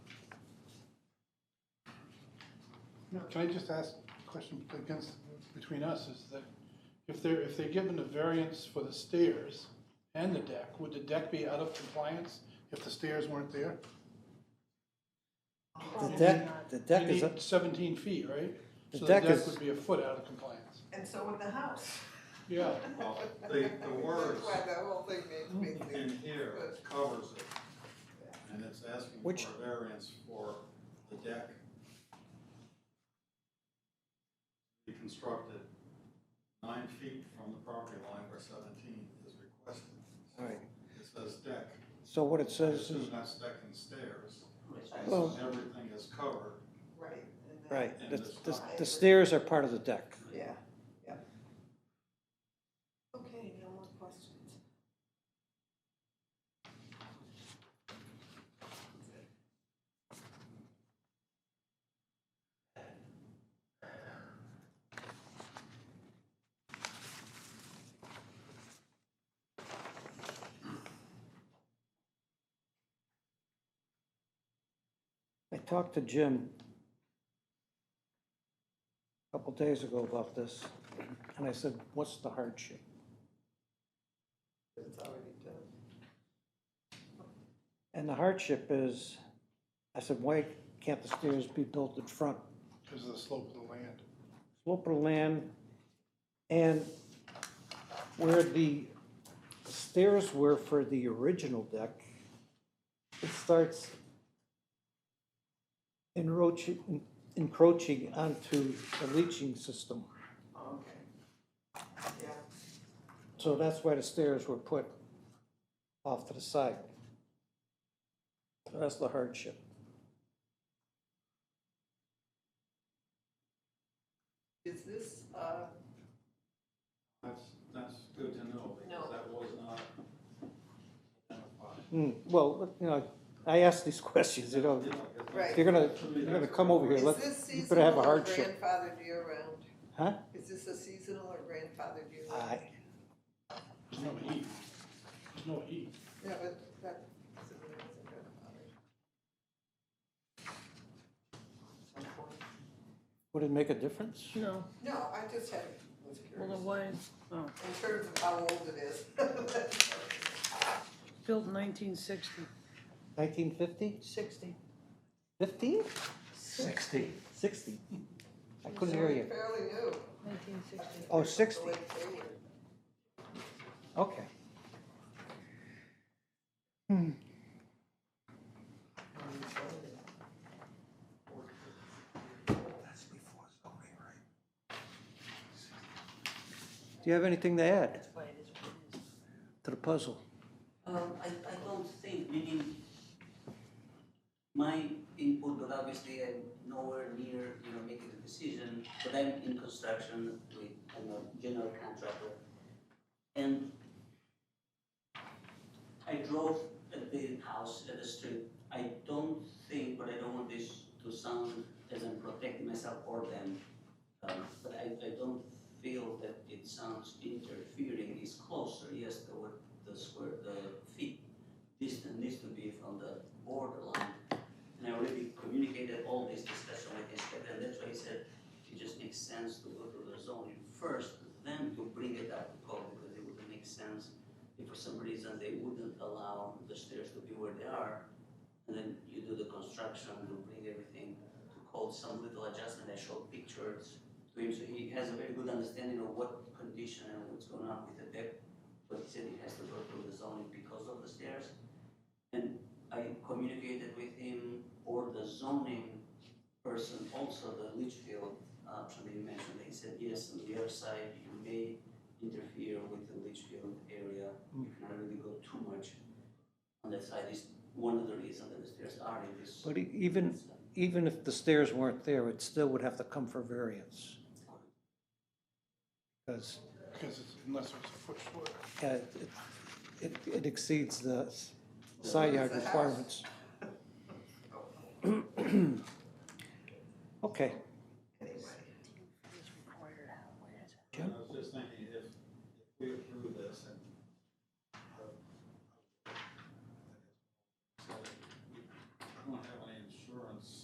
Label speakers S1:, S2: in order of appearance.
S1: You know, can I just ask a question against, between us, is that if they're, if they're given a variance for the stairs and the deck, would the deck be out of compliance if the stairs weren't there?
S2: The
S3: Um,
S4: Probably not.
S2: deck, the
S4: You
S1: You
S2: deck is,
S4: need-
S2: need seventeen feet, right? The
S1: So
S2: deck
S1: The
S2: is-
S1: deck would be a foot out of compliance.
S3: And so would the house.
S1: Yeah,
S5: Well, the, the words
S3: That's why that whole thing made me
S5: in
S3: think.
S5: here covers it. And it's asking
S2: Which-
S5: for a variance for the deck. Be constructed nine feet from the property line where seventeen is requested. So
S2: Right.
S5: It says deck.
S2: so what it
S5: I
S2: says is,
S5: assume that's deck and stairs. And so
S2: Well-
S5: everything is covered.
S3: Right. and then-
S2: right, the, the- the
S3: Yeah.
S2: stairs are part of the deck.
S3: Yeah, yeah. Okay, no more questions.
S2: I talked to Jim a couple days ago about this, and I said, what's the hardship?
S3: It's already done.
S2: And the hardship is, I said, why can't the stairs be built in front?
S1: because of the slope of the land.
S2: Slope of land, and where the stairs were for the original deck, it starts encroaching, encroaching onto the leaching system.
S3: Oh, Okay. Yeah,
S2: So that's why the stairs were put off to the side. That's the hardship.
S3: is this, uh,
S5: That's, that's good to know because
S3: No.
S5: that was not identified.
S2: Hmm, well, you know, I ask these questions, you know,
S5: Yeah, I guess that's-
S2: if
S3: Right.
S2: you're gonna,
S5: To me,
S2: you're gonna
S5: that's-
S2: come over here,
S3: is
S2: let,
S3: this
S2: you better have
S3: seasonal
S2: a
S3: or
S2: hardship,
S3: grandfathered year round?
S2: huh?
S3: Is this a seasonal or grandfathered year round?
S2: I,
S1: There's no heat. There's no heat.
S3: Yeah, but that, so there is a grandfathered. Some point.
S2: would it make a difference?
S6: No,
S3: No, I just had, was
S6: well,
S3: curious,
S6: the why is, oh,
S3: in terms of how old it is.
S6: built in nineteen sixty.
S2: Nineteen fifty?
S6: Sixty.
S2: Fifteen? Sixty. Sixty. I couldn't hear you.
S3: Fairly new.
S6: Nineteen sixty.
S2: Oh, sixty,
S3: The way they were.
S2: okay. Do you have anything to add
S7: That's why it is what it is.
S2: to the puzzle?
S7: Um, I, I don't think, meaning, my input, but obviously I'm nowhere near, you know, making a decision, but I'm in construction with, I'm a general contractor. And I drove at the house, at the street, I don't think, but I don't want this to sound as I'm protecting myself or them, um, but I, I don't feel that it sounds interfering, it's closer, yes, the word the square, the feet distance needs to be from the borderline. And I already communicated all this discussion with inspector, and that's why he said it just makes sense to go through the zoning first, then to bring it up to code, because it wouldn't make sense if for some reason they wouldn't allow the stairs to be where they are, and then you do the construction, you bring everything to code, some little adjustment, I showed pictures to him, so he has a very good understanding of what condition and what's going on with the deck but he said he has to go through the zoning because of the stairs. And I communicated with him or the zoning person, also the Litchfield option that you mentioned. He said, yes, on the other side, you may interfere with the Litchfield area. You cannot really go too much on that side. Is one of the reasons that the stairs are in this.
S2: But e- even, even if the stairs weren't there, it still would have to come for variance. Because
S1: Because it's, unless it's a foot short.
S2: uh, it, it it exceeds the s- side yard requirements. Okay,
S5: uh,